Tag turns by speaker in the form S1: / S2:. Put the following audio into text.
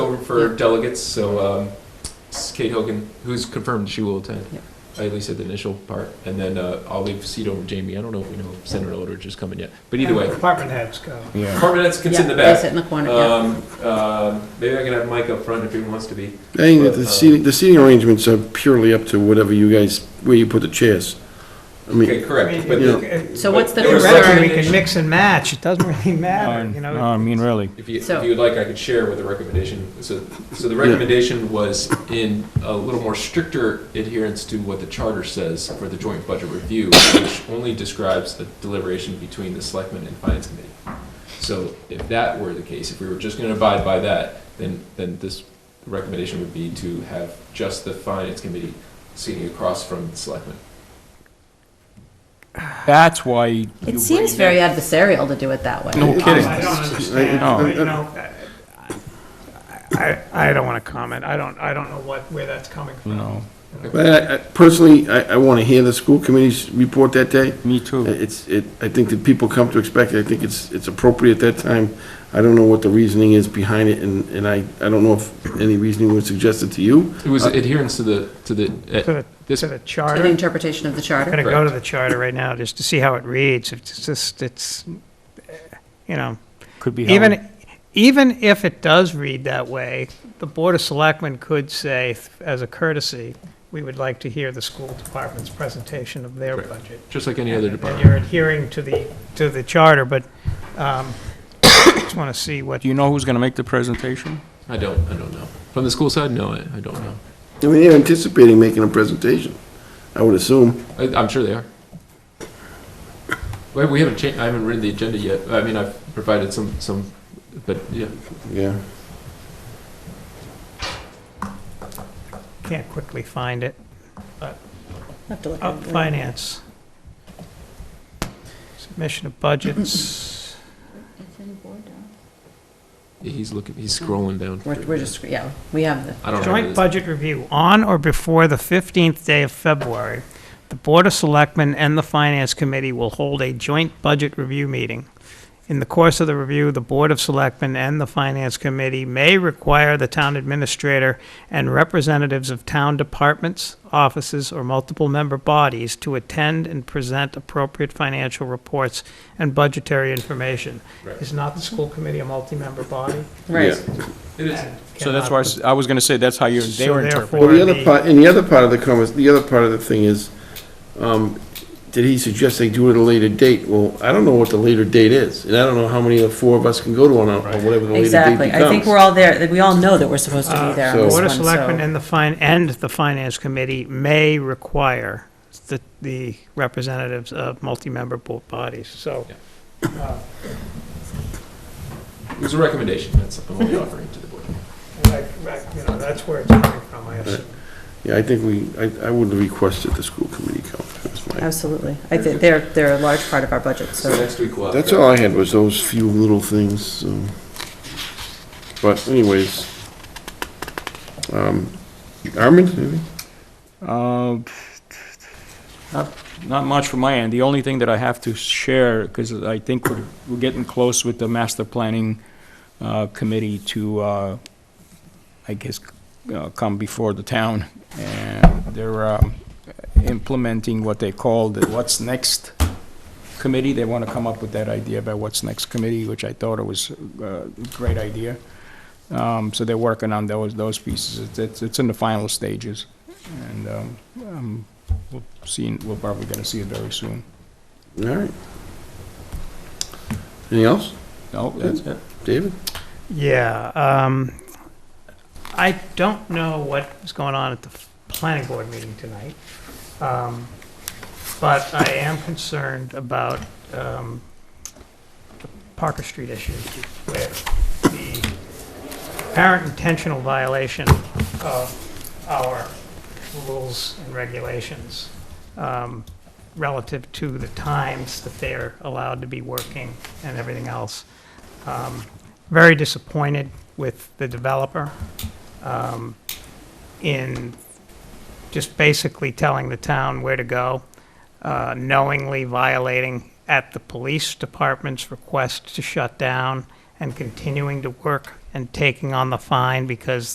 S1: for
S2: Yeah.
S1: delegates, so um, it's Kate Hogan, who's confirmed she will attend.
S2: Yeah.
S1: I At least at the initial part, and then uh, I'll leave seat over Jamie. I don't know if we know if Senator Eldridge is coming yet, but either way,
S3: Department heads go.
S4: Yeah.
S1: department heads can sit in the
S2: Yeah, They
S1: back.
S2: sit in the corner, yeah.
S1: Um, uh, maybe I can have Mike up front if he wants to be.
S4: I think that the seating, the seating arrangements are purely up to whatever you guys, where you put the chairs. I
S1: Okay,
S4: mean,
S3: I
S1: correct.
S3: mean,
S1: But
S4: Yeah.
S1: the-
S3: it-
S2: So what's the
S1: There was
S3: Theoretically, we
S2: concern?
S1: recommendation.
S3: can mix and match, it doesn't really matter, you
S4: No,
S3: know?
S4: I mean, really.
S1: If you, if
S2: So-
S1: you would like, I could share with the recommendation. So, so the recommendation was in a little more stricter adherence to what the charter says for the joint budget review, which only describes the deliberation between the selectmen and finance committee. So if that were the case, if we were just gonna abide by that, then, then this recommendation would be to have just the finance committee sitting across from the selectmen.
S5: That's why. you
S2: It
S5: bring
S2: seems
S5: that-
S2: very adversarial to do it that way.
S4: No kidding.
S3: I don't
S4: I- I-
S3: understand, you know, I, I I don't want to comment, I don't, I don't know what, where that's coming from.
S5: No,
S4: But I- I- personally, I, I want to hear the school committee's report that day.
S5: me
S4: I-
S5: too.
S4: It's, it, I think that people come to expect it, I think it's, it's appropriate at that time. I don't know what the reasoning is behind it, and, and I, I don't know if any reasoning was suggested to you.
S1: It was adherence to the, eh, to the,
S3: To the,
S1: this-
S3: to the
S2: To the
S3: charter,
S2: interpretation of the
S3: I'm
S2: charter.
S3: gonna go to the charter right now, just to see how it reads, it's just, it's, eh, you know,
S5: Could be. Howard.
S3: Even, even if it does read that way, the Board of Selectmen could say, as a courtesy, we would like to hear the school department's presentation of their
S1: Correct.
S3: budget.
S1: just like any other
S3: And
S1: department.
S3: you're adhering to the, to the charter, but um, just want to see what,
S5: Do you know who's going to make the presentation?
S1: I don't, I don't know. From the school side, no, I, I don't know.
S4: I mean, they're anticipating making a presentation, I would assume.
S1: I, I'm sure they are. Well, we haven't changed, I haven't read the agenda yet. I mean, I've provided some, some, but yeah.
S4: Yeah.
S3: can't quickly find it.
S2: Have to look
S3: Up
S2: at it.
S3: finance. Submission of budgets.
S1: He's looking, he's scrolling down.
S2: We're, we're just, yeah, we have the,
S1: I don't know.
S3: Joint
S1: what it is.
S3: budget review, on or before the 15th day of February, the Board of Selectmen and the Finance Committee will hold a joint budget review meeting. In the course of the review, the Board of Selectmen and the Finance Committee may require the town administrator and representatives of town departments, offices, or multiple member bodies to attend and present appropriate financial reports and budgetary information.
S1: Right.
S3: Is not the school committee a multi-member body?
S2: right.
S1: It is.
S5: So that's why I s- I was going to say, that's how you, they
S3: So
S5: were interpreting.
S4: Well,
S3: therefore,
S4: the other part, and the other part of the comment, the other part of the thing is, um, did he suggest they do it at a later date? Well, I don't know what the later date is, and I don't know how many of the four of us can go to one, or or whatever the later date becomes.
S2: Exactly. I think we're all there, that we all know that we're supposed to be there on
S4: so-
S2: this
S3: Uh, Board
S2: one,
S3: of Selectmen
S2: so.
S3: and the fin, and the Finance Committee may require the, the representatives of multi-member bo- bodies, so.
S1: Yeah. It was a recommendation, that's, I'm only offering to the board.
S3: like, like, You know, that's where it's coming from, I assume.
S4: Yeah, I think we, I, I would request that the school committee come, that's my,
S2: Absolutely. I think they're, they're a large part of our budget,
S1: So
S2: so.
S1: next week we'll have.
S4: that's all I had was those few little things, so. But anyways, um, Armand, maybe?
S5: Uh, Not not much from my end. The only thing that I have to share, because I think we're we're getting close with the master planning uh, committee to, uh, I guess, uh, come before the town. And they're um, implementing what they call the What's Next Committee. They want to come up with that idea about What's Next Committee, which I thought it was uh, a great idea. Um, So they're working on those, those pieces. It's- It's, it's in the final stages. And um, um, we'll see, we're probably going to see it very soon.
S4: All right. Anything else?
S5: No, that's it.
S4: David?
S3: Yeah, um, I don't know what was going on at the planning board meeting tonight. Um, but I am concerned about, um, the Parker Street issue with the apparent intentional violation of our rules and regulations, um, relative to the times that they're allowed to be working and everything else. Um, very disappointed with the developer um, in just basically telling the town where to go, uh, knowingly violating at the police department's request to shut down and continuing to work and taking on the fine because